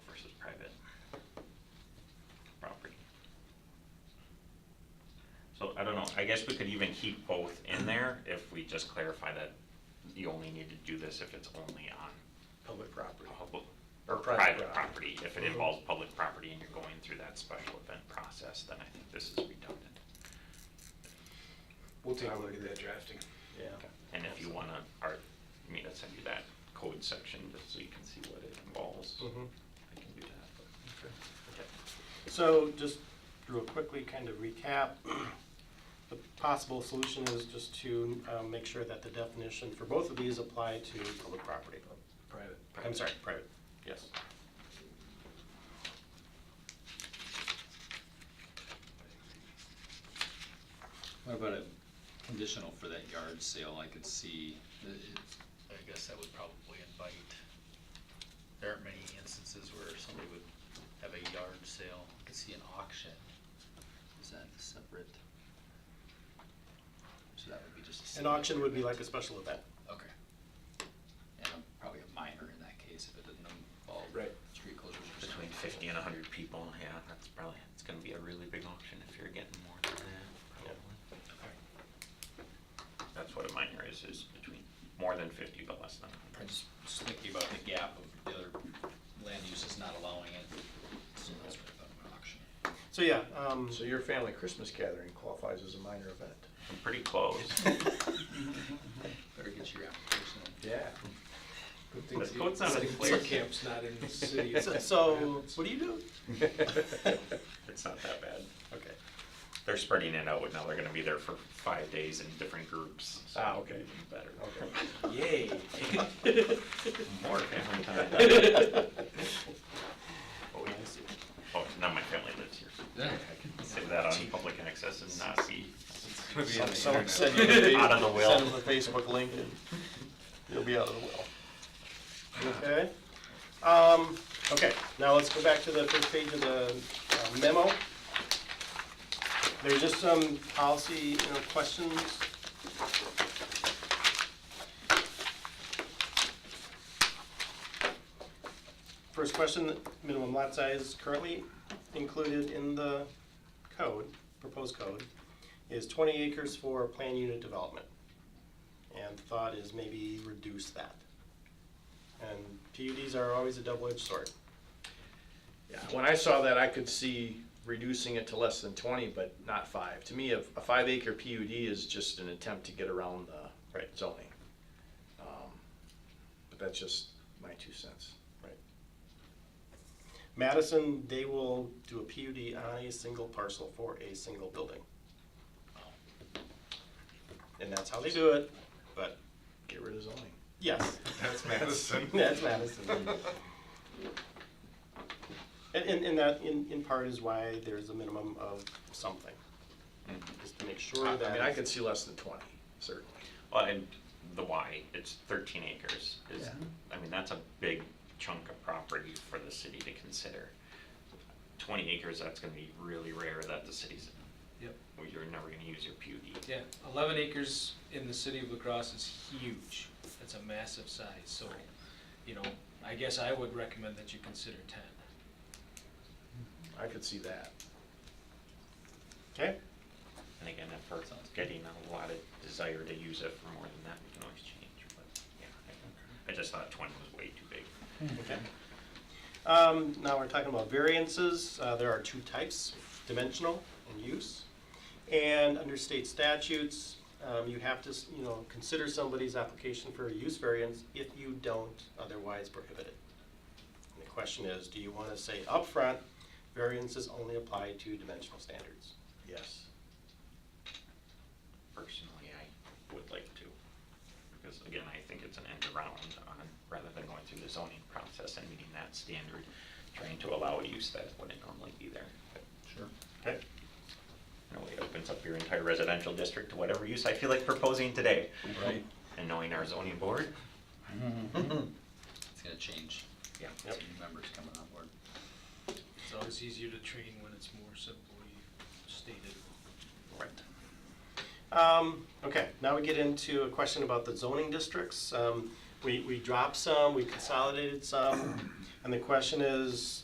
So I don't know, I guess we could even keep both in there if we just clarify that you only need to do this if it's only on Public property. public Or or private Uh-huh. private property. property. If it involves public property and you're going through that special event process, then I think this is redundant. We'll take a look at that drafting. Yeah. And if you wanna, or, I mean, I'll send you that code section just so you can see what it involves. Mhm. I can do that, but. So just real quickly, kind of recap, the possible solution is just to um, make sure that the definition for both of these apply to public property. Private. I'm sorry, private, yes. What about a conditional for that yard sale, I could see, that it- I guess that would probably invite, there aren't many instances where somebody would have a yard sale, I could see an auction. Is that separate? So that would be just a. An single- auction would be like a special event. Okay. And I'm probably a minor in that case if it doesn't involve. Right. Street closures or Between something. fifty and hundred people, yeah, that's probably, it's gonna be a really big auction if you're getting more than that, probably. Okay. That's what a minor is, is between more than fifty but less than a I'm hundred. just just thinking about the gap of the other land uses not allowing it, so that's what I thought of an auction. So yeah, um, So your family Christmas gathering qualifies as a minor event? I'm pretty close. Better get your application in. Yeah. Good thing Let's the- go with something good thing clear. the Camp's not in the city. so- so what do you do? It's not that bad. Okay. They're spreading it out, now they're gonna be there for five days in different groups. so Ah, okay. even Better. Okay. Yay. More family time. Oh, yeah. I see. Oh, now my family lives here. Yeah. Say that on public access and not be Some- Someone send you the, Out of the will. send them the Facebook link and you'll be out of the will. Okay? Um, okay, now let's go back to the first page of the uh, memo. There's just some policy, you know, questions. First question, minimum lot size currently included in the code, proposed code is twenty acres for plan unit development. And thought is maybe reduce that. And PUDs are always a double-edged sword. Yeah, when I saw that, I could see reducing it to less than twenty, but not five. To me, a, a five acre PUD is just an attempt to get around the Right. zoning. Um, But that's just my two cents. Madison, they will do a PUD on a single parcel for a single building. And that's how they do it, but Get rid of zoning. yes, That's Madison. that's Madison. And, and, and that in, in part is why there's a minimum of something, is to make sure Mm-hmm. I that. I mean, I could see less than twenty, certainly. Well, and the why, it's thirteen acres, is, I mean, that's a big chunk of property for the city to consider. Twenty acres, that's gonna be really rare that the city's, Yep. well, you're never gonna use your PUD. Yeah, eleven acres in the city of La Crosse is huge. That's a massive size, so, you know, I guess I would recommend that you consider ten. I could see that. Okay? And again, if we're getting a lot of desire to use it for more than that, we can always change, but, yeah. I- I just thought twenty was way too big. Okay. Um, now we're talking about variances. Uh, there are two types, dimensional and use. And under state statutes, um, you have to, s- you know, consider somebody's application for a use variance if you don't otherwise prohibit it. And the question is, do you want to say upfront, variances only apply to dimensional standards? Yes. personally, I would like to. Because again, I think it's an end around on, rather than going through the zoning process and meeting that standard, trying to allow a use that wouldn't normally be there. Sure. Okay? In a way, it opens up your entire residential district to whatever use I feel like proposing today. Right. And knowing our zoning board, It's gonna change. yeah. Yep. Some new members coming on board. It's always easier to train when it's more simply stated. Right. Um, okay, now we get into a question about the zoning districts. Um, we, we dropped some, we consolidated some, and the question is,